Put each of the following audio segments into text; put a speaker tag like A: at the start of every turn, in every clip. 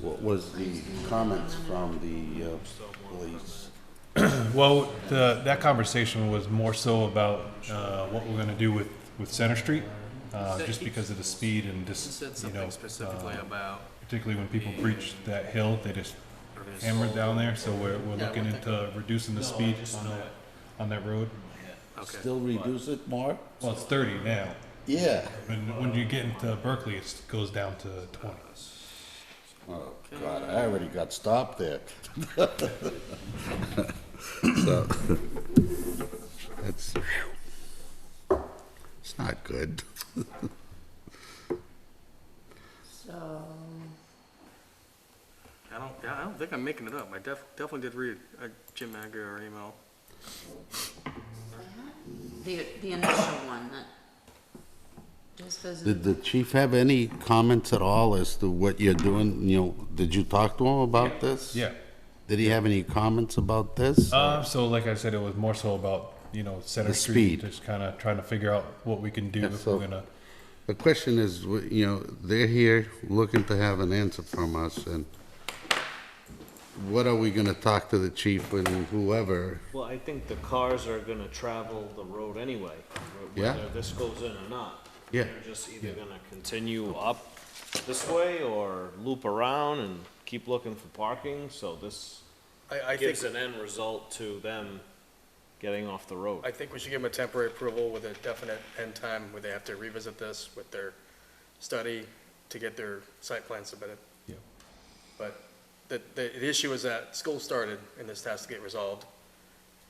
A: What was the comments from the uh, police?
B: Well, the, that conversation was more so about uh, what we're going to do with, with Center Street, uh, just because of the speed and
C: He
B: just,
C: said
B: you know,
C: something specifically
B: uh,
C: about.
B: particularly when people breach that hill, they just hammered down there. So we're, we're
C: Yeah,
B: looking
C: what
B: into reducing the speed on that, on that road.
C: Okay.
A: Still reduce it, Mark?
B: Well, it's 30 now.
A: Yeah.
B: When, when you get into Berkeley, it goes down to 20.
A: Oh, God, I already got stopped there. So, that's, it's not good.
D: So,
C: I don't, yeah, I don't think I'm making it up. I def, definitely did read a Jim Aguirre email.
D: the, the initial one that just doesn't,
A: Did the chief have any comments at all as to what you're doing? You know, did you talk to him about this?
B: Yeah.
A: Did he have any comments about this?
B: Uh, so like I said, it was more so about, you know, Center
A: The
B: Street,
A: speed.
B: just kind of trying to figure out what we can do
A: Yeah,
B: if
A: so-
B: we're going to.
A: The question is, w- you know, they're here looking to have an answer from us, and what are we gonna talk to the chief and whoever?
E: Well, I think the cars are gonna travel the road anyway, wh-
A: Yeah.
E: whether this goes in or not.
A: Yeah.
E: They're just either gonna continue up this way or loop around and keep looking for parking, so this
C: I, I
E: gives
C: think,
E: an end result to them getting off the road.
C: I think we should give them a temporary approval with a definite end time where they have to revisit this with their study to get their site plan submitted.
B: Yeah.
C: But the, the, the issue is that school started and this has to get resolved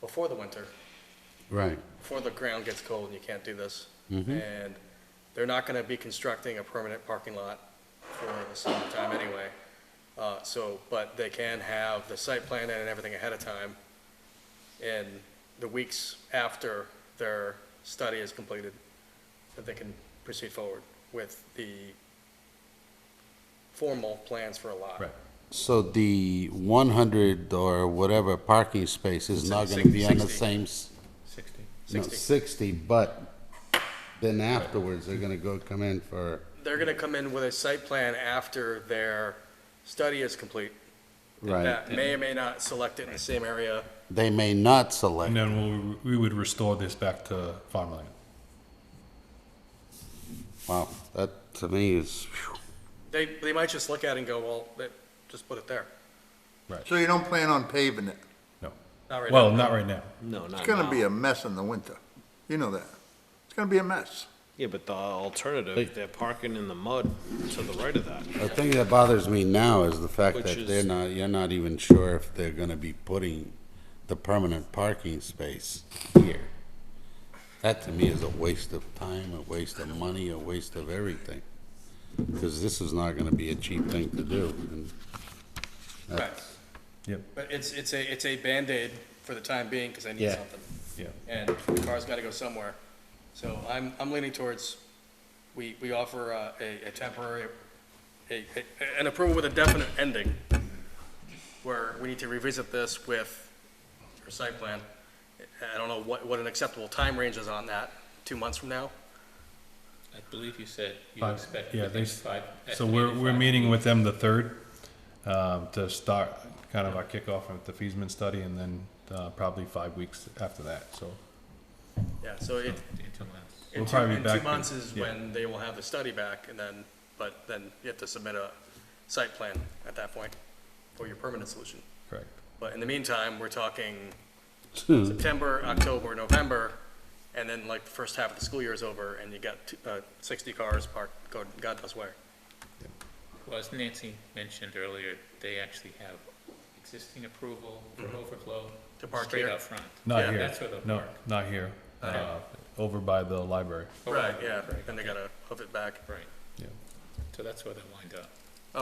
C: before the winter.
A: Right.
C: before the ground gets cold and you can't do this. And they're not gonna be constructing a permanent parking lot for the summertime anyway. Uh, so, but they can have the site plan and everything ahead of time in the weeks after their study is completed, that they can proceed forward with the formal plans for a lot.
B: Right.
A: So the one hundred or whatever parking space is not gonna be on the
C: Sixty.
A: same, s-
C: Sixty.
A: no, sixty, but then afterwards, they're gonna go come in for,
C: They're gonna come in with a site plan after their study is complete.
A: right?
C: that may or may not select it in the same area.
A: They may not
B: And
A: select,
B: then we, we would restore this back to farmland.
A: wow, that to me is, phew.
C: They, they might just look at it and go, well, they- just put it there.
F: So you don't plan on paving it?
B: No.
C: Not right
B: Well,
C: now.
B: not right now.
E: Uh, No, not
F: It's gonna be
E: now.
F: a mess in the winter. You know that. It's gonna be a mess.
E: Yeah, but the alternative, they're parking in the mud to the right of that.
A: The thing that bothers me now is the fact
E: Which
A: that
E: is-
A: they're not, you're not even sure if they're gonna be putting the permanent parking space here. That to me is a waste of time, a waste of money, a waste of everything. Because this is not gonna be a cheap thing to do. and that's-
B: Yep.
C: But it's, it's a, it's a Band-Aid for the time being, because they need
A: Yeah.
C: something.
B: Yeah.
C: And the car's gotta go somewhere. So I'm, I'm leaning towards, we, we offer uh, a, a temporary, a, a- an approval with a definite ending, where we need to revisit this with your site plan. I don't know what, what an acceptable time range is on that, two months from now?
G: I believe you said you
B: Five-
G: expect
B: yeah, they
G: within
B: s-
G: five.
B: So we're,
G: estimated
B: we're
G: five
B: meeting with them the third, um, to start kind of our kickoff with the Feesman study and then, uh, probably five weeks after that, so.
C: Yeah, so it,
G: until that's-
C: In
B: We'll
C: two,
B: probably be
C: in
B: back
C: two
B: in-
C: months is
B: yeah.
C: when they will have the study back, and then, but then you have to submit a site plan at that point for your permanent solution.
B: Correct.
C: But in the meantime, we're talking
B: Hmm.
C: September, October, November, and then like the first half of the school year is over, and you got, t- uh, sixty cars parked, God, God knows where.
G: Well, as Nancy mentioned earlier, they actually have existing approval for overflow.
C: Mm-hmm. To park
G: Straight
C: here.
G: out front.
B: Not
C: Yeah,
B: here.
G: that's where they'll
B: No,
G: park.
B: not here. Uh, over by the library.
C: Right,
G: Oh,
C: yeah, then they gotta hoof it back.
G: Right,
B: Yeah.
G: so that's where they'll wind up.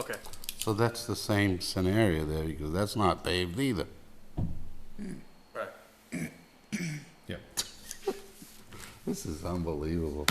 C: Okay,
A: So that's the same scenario there, because that's not paved either.
C: right.
B: Yeah.
A: This is unbelievable.